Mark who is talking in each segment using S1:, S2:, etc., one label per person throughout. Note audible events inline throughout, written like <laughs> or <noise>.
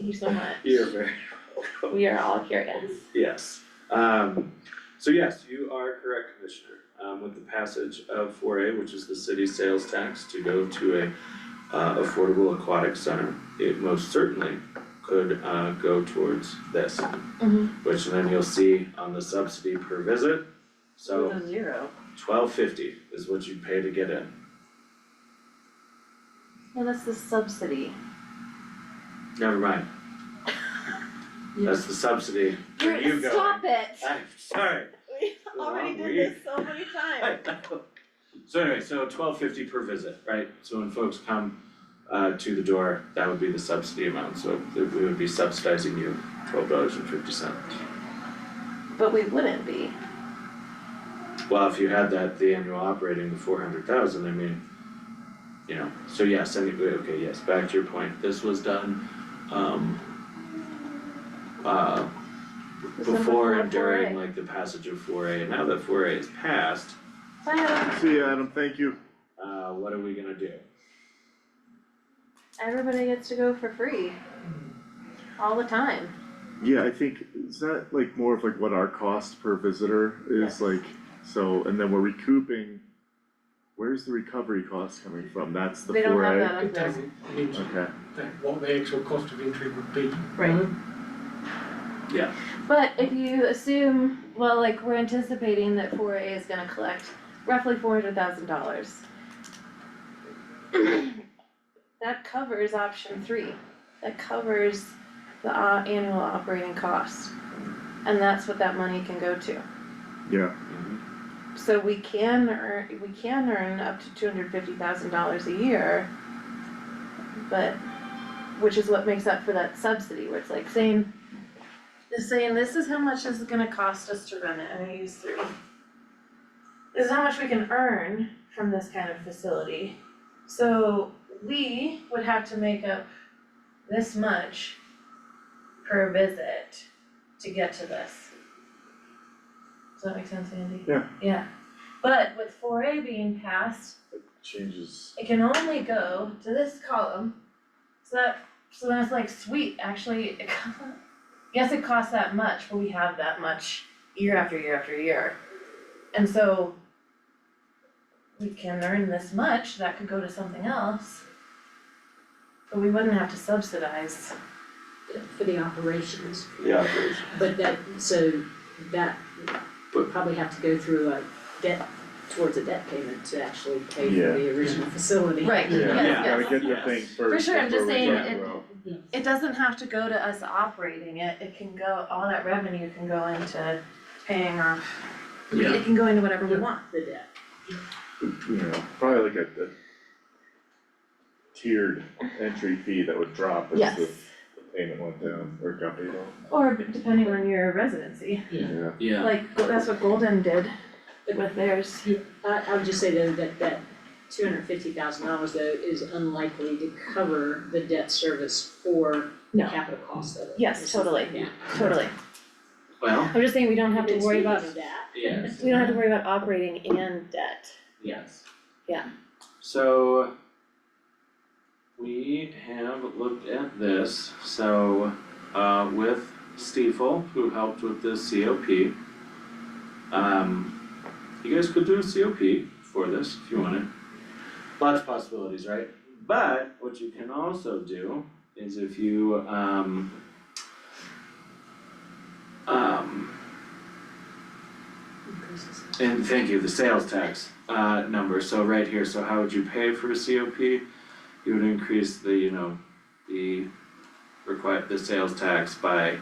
S1: you so much.
S2: You're very welcome.
S1: We are all curious.
S2: Yes, um, so yes, you are correct, Commissioner. Um, with the passage of four A, which is the city sales tax to go to a uh affordable aquatic center, it most certainly could uh go towards this,
S3: Mm-hmm.
S1: Mhm.
S2: which then you'll see on the subsidy per visit. So
S3: With a zero.
S2: twelve fifty is what you pay to get in.
S3: No, that's the subsidy.
S2: Never mind. That's the subsidy. Where you go.
S3: Stop it.
S2: I'm sorry.
S1: <laughs> We already did this so many times.
S2: I know. So anyway, so twelve fifty per visit, right? So when folks come uh to the door, that would be the subsidy amount, so th- we would be subsidizing you twelve dollars and fifty cents.
S3: But we wouldn't be.
S2: Well, if you had that, the annual operating, the four hundred thousand, I mean, you know, so yes, anyway, okay, yes, back to your point, this was done, um. Uh,
S3: This was
S2: before
S3: before
S2: and during
S3: 4A.
S2: like the passage of four A, and now that four A is passed,
S3: Bye, Adam.
S4: See ya, Adam, thank you.
S2: uh, what are we gonna do?
S3: Everybody gets to go for free. All the time.
S4: Yeah, I think, is that like more of like what our cost per visitor is
S3: Yes.
S4: like, so, and then we're recouping. Where's the recovery cost coming from? That's the
S3: They don't
S4: four
S3: have
S4: A?
S3: that on
S5: It
S3: there.
S5: doesn't, I mean,
S4: Okay,
S5: that- what the actual cost of entry would be.
S3: Right.
S2: Yeah.
S3: But if you assume, well, like, we're anticipating that four A is gonna collect roughly four hundred thousand dollars. <clears throat> That covers option three, that covers the uh annual operating cost. And that's what that money can go to.
S4: yeah,
S3: So we can earn, we can earn up to two hundred fifty thousand dollars a year. But, which is what makes up for that subsidy, where it's like saying, it's saying, this is how much this is gonna cost us to run it, and I use three. This is how much we can earn from this kind of facility. So we would have to make up this much per visit to get to this. Does that make sense, Andy?
S4: Yeah.
S3: Yeah, but with four A being passed,
S4: it changes.
S3: it can only go to this column. So that, so then it's like, sweet, actually, it <laughs> co- yes, it costs that much, but we have that much year after year after year. And so we can earn this much, that could go to something else. But we wouldn't have to subsidize.
S6: for the operations,
S2: Yeah, please.
S6: but that, so that would probably have to go through a debt, towards a debt payment to actually pay
S4: Yeah.
S6: for the original facility.
S3: Right,
S4: Yeah,
S2: yes,
S4: gotta
S2: yes.
S4: get the
S2: yes.
S4: thing
S2: For
S4: first.
S3: sure, I'm just
S4: before we
S3: saying
S4: can
S3: it-
S4: grow.
S3: It doesn't have to go to us operating it, it can go, all that revenue can go into paying off.
S2: Yeah.
S3: It can go into whatever we want.
S6: The debt.
S4: you know, probably like a, a tiered entry fee that would drop as
S3: Yes.
S4: the payment went down or got paid off.
S3: Or b- depending on your residency,
S4: Yeah,
S2: Yeah,
S3: like go- that's what Golden did with theirs.
S6: I, I would just say though, that, that two hundred fifty thousand dollars though is unlikely to cover the debt service for the
S3: No.
S6: capital cost of it.
S3: Yes,
S6: It's just-
S3: totally.
S6: Yeah.
S3: Totally.
S2: well,
S3: I'm just saying we don't have to
S6: It's
S3: worry
S6: because
S3: about,
S6: of that.
S2: yes,
S3: we don't have to worry about operating and debt.
S2: yes.
S3: Yeah.
S2: So we have looked at this, so uh with Stiefel, who helped with the COP. Um, you guys could do a COP for this if you wanted. Lots of possibilities, right? But what you can also do is if you um um And thank you, the sales tax uh number, so right here, so how would you pay for a COP? You would increase the, you know, the require the sales tax by, you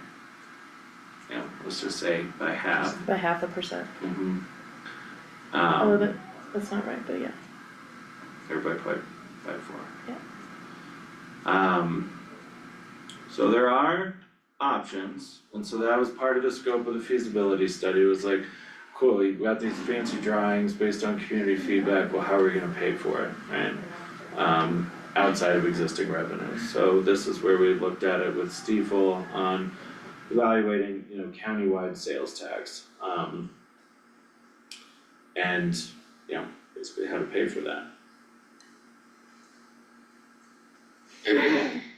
S2: know, let's just say by half.
S3: By half a percent,
S2: Mm-hmm.
S3: although
S2: Um,
S3: that, that's not right, but yeah.
S2: or by by by four.
S3: Yeah.
S2: Um, so there are options, and so that was part of the scope of the feasibility study, It was like, cool, you got these fancy drawings based on community feedback, well, how are we gonna pay for it, right? Um, outside of existing revenues, so this is where we looked at it with Stiefel on evaluating, you know, countywide sales tax, um. And, you know, basically how to pay for that.